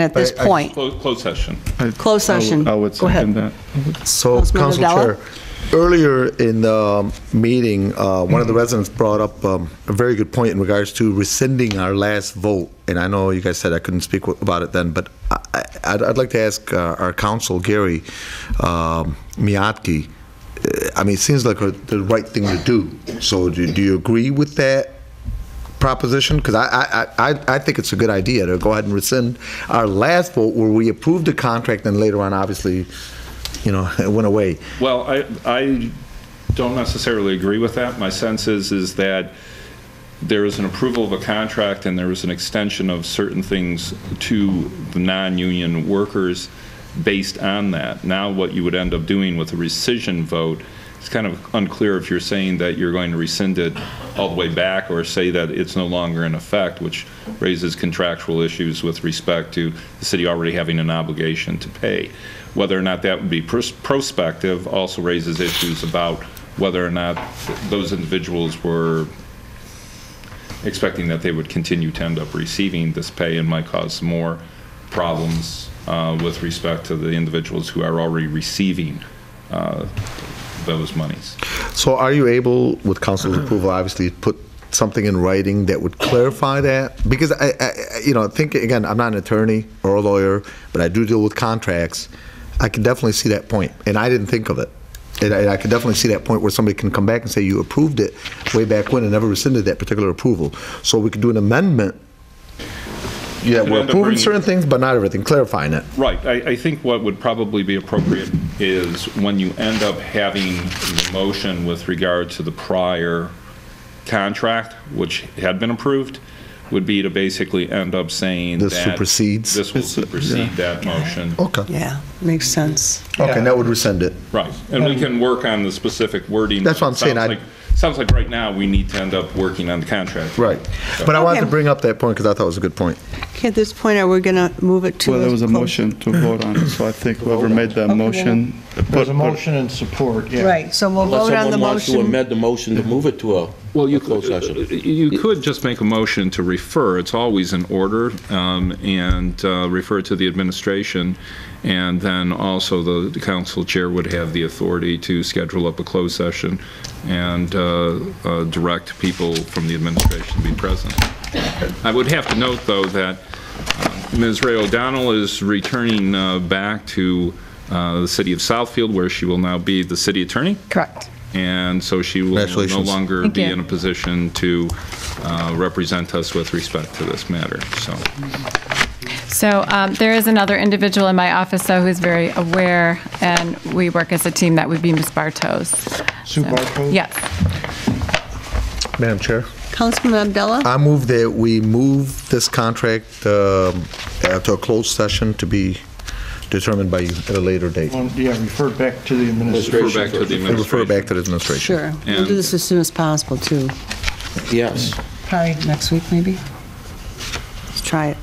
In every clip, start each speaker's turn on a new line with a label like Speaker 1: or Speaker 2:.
Speaker 1: at this
Speaker 2: I- I-
Speaker 1: point.
Speaker 3: Close closed session.
Speaker 1: Closed session.
Speaker 4: I would
Speaker 1: Go ahead.
Speaker 4: second that.
Speaker 2: So,
Speaker 1: Councilman
Speaker 2: Council Chair, earlier in the um, meeting, uh, one of the residents brought up um, a very good point in regards to rescinding our last vote. And I know you guys said I couldn't speak w- about it then, but I- I- I'd I'd like to ask uh, our counsel, Gary um, Miyake, uh, I mean, it seems like a- the right thing to do. So do do you agree with that proposition? Because I, I, I, I think it's a good idea to go ahead and rescind our last vote where we approved the contract and later on, obviously, you know, it went away.
Speaker 3: Well, I, I don't necessarily agree with that. My sense is, is that there is an approval of a contract and there is an extension of certain things to the non-union workers based on that. Now, what you would end up doing with a rescission vote, it's kind of unclear if you're saying that you're going to rescind it all the way back or say that it's no longer in effect, which raises contractual issues with respect to the city already having an obligation to pay. Whether or not that would be pros- prospective also raises issues about whether or not th- those individuals were expecting that they would continue to end up receiving this pay and might cause more problems uh, with respect to the individuals who are already receiving uh, those monies.
Speaker 2: So are you able, with council's
Speaker 1: Mm-hmm.
Speaker 2: approval, obviously, put something in writing that would clarify that? Because I, I, I- you know, I think, again, I'm not an attorney or a lawyer, but I do deal with contracts. I can definitely see that point, and I didn't think of it. And I, I could definitely see that point where somebody can come back and say, you approved it way back when and never rescinded that particular approval. So we could do an amendment. Yeah, we're
Speaker 3: Could end up
Speaker 2: approving
Speaker 3: bringing-
Speaker 2: certain things, but not everything, clarifying it.
Speaker 3: Right, I, I think what would probably be appropriate is when you end up having the motion with regard to the prior contract, which had been approved, would be to basically end up saying
Speaker 2: This
Speaker 3: that
Speaker 2: supersedes?
Speaker 3: This will supersede that motion.
Speaker 2: Okay.
Speaker 1: Yeah, makes sense.
Speaker 2: Okay, and that would rescind it.
Speaker 3: Right, and we can work on the specific wording.
Speaker 2: That's what I'm saying,
Speaker 3: Sounds
Speaker 2: I-
Speaker 3: like- Sounds like right now, we need to end up working on the contract.
Speaker 2: Right. But I wanted to
Speaker 1: Okay.
Speaker 2: bring up that point because I thought it was a good point.
Speaker 1: Okay, at this point, are we going to move it to?
Speaker 4: Well, there was a
Speaker 1: clo-
Speaker 4: motion to vote on, it, so I think whoever made that motion.
Speaker 5: There's
Speaker 4: put-
Speaker 5: a motion and support, yeah.
Speaker 1: Right, so we'll
Speaker 6: Unless
Speaker 1: vote on the
Speaker 6: someone wants to
Speaker 1: motion.
Speaker 6: amend the motion to move it to a
Speaker 3: Well, you
Speaker 6: a closed session.
Speaker 3: could, uh, you could just make a motion to refer, it's always in order, um, and uh, refer to the administration, and then also the the council chair would have the authority to schedule up a closed session and uh, uh, direct people from the administration to be present. I would have to note, though, that uh, Ms. Ray O'Donnell is returning uh, back to uh, the city of Southfield, where she will now be the city attorney.
Speaker 7: Correct.
Speaker 3: And so she will no
Speaker 2: Congratulations.
Speaker 3: longer
Speaker 7: Thank
Speaker 3: be
Speaker 7: you.
Speaker 3: in a position to uh, represent us with respect to this matter, so.
Speaker 7: So um, there is another individual in my office, though, who's very aware, and we work as a team. That would be Ms. Bartos.
Speaker 5: Sue Bartos?
Speaker 7: Yes.
Speaker 2: Madam Chair?
Speaker 1: Councilman Abdullah?
Speaker 2: I move that we move this contract um, uh, to a closed session to be determined by you at a later date.
Speaker 5: Well, Yeah, referred back to the administration.
Speaker 3: Refer back to the
Speaker 2: And refer
Speaker 3: administration.
Speaker 2: back to the administration.
Speaker 1: Sure. We'll do this as soon as possible, too.
Speaker 6: Yes,
Speaker 1: Probably next week, maybe? Let's try it.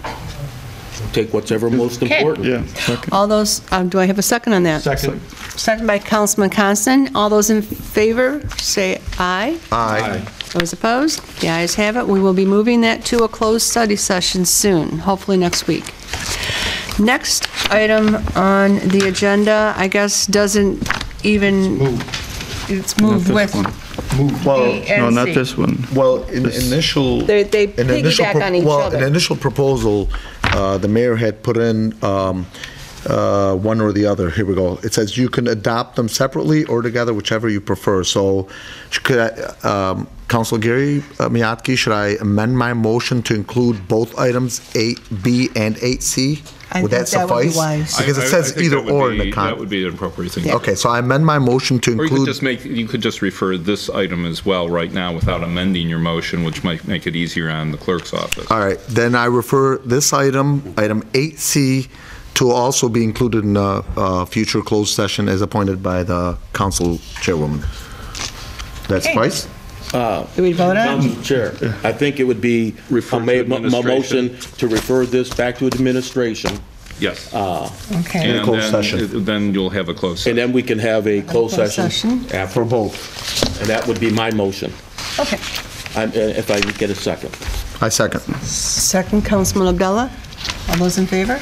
Speaker 6: take whatever most important.
Speaker 4: Yeah, second.
Speaker 1: All those, um, do I have a second on that?
Speaker 5: Second.
Speaker 1: Second by Councilman Constant. All those in favor, say aye.
Speaker 2: Aye.
Speaker 1: Those opposed? The ayes have it. We will be moving that to a closed study session soon, hopefully next week. Next item on the agenda, I guess, doesn't even... It's moved
Speaker 4: Not
Speaker 1: with
Speaker 4: this one.
Speaker 1: B
Speaker 4: No,
Speaker 1: and
Speaker 4: not
Speaker 1: C.
Speaker 4: this one.
Speaker 2: Well, in initial.
Speaker 1: They- they
Speaker 2: in initial
Speaker 1: piggyback
Speaker 2: pro-
Speaker 1: on each
Speaker 2: Well,
Speaker 1: other.
Speaker 2: in initial proposal, uh, the mayor had put in um, uh, one or the other. Here we go. It says you can adopt them separately or together, whichever you prefer. So could I, um, Council Gary uh, Miyake, should I amend my motion to include both items 8B and 8C?
Speaker 1: I
Speaker 2: Would
Speaker 1: think
Speaker 2: that
Speaker 1: that would be
Speaker 2: suffice?
Speaker 1: wise.
Speaker 2: Because
Speaker 3: I- I-
Speaker 2: it
Speaker 3: I
Speaker 2: says
Speaker 3: think
Speaker 2: either
Speaker 3: that would
Speaker 2: or in
Speaker 3: be-
Speaker 2: the
Speaker 3: That would
Speaker 2: con.
Speaker 3: be the appropriate thing.
Speaker 2: Okay, so I amend my motion to
Speaker 3: Or you could
Speaker 2: include.
Speaker 3: just make, you could just refer this item as well right now without amending your motion, which might make it easier on the clerk's office.
Speaker 2: All right, then I refer this item, item 8C, to also be included in a uh, future closed session as appointed by the council chairwoman. That's
Speaker 1: Okay.
Speaker 2: twice?
Speaker 1: Did we vote on it?
Speaker 6: Council Chair, I think it would be,
Speaker 3: Refer
Speaker 6: I
Speaker 3: to
Speaker 6: made my my
Speaker 3: administration.
Speaker 6: motion to refer this back to administration,
Speaker 3: Yes.
Speaker 7: Uh,
Speaker 1: Okay.
Speaker 2: In a
Speaker 3: And
Speaker 2: closed
Speaker 3: then,
Speaker 2: session.
Speaker 3: then you'll have a closed session.
Speaker 6: and then we can have a closed
Speaker 1: Closed
Speaker 6: session.
Speaker 1: session.
Speaker 6: after.
Speaker 2: both.
Speaker 6: And that would be my motion,
Speaker 1: Okay.
Speaker 6: I'm- uh, if I can get a second.
Speaker 2: I second.
Speaker 1: Second, Councilman Abdullah. All those in favor?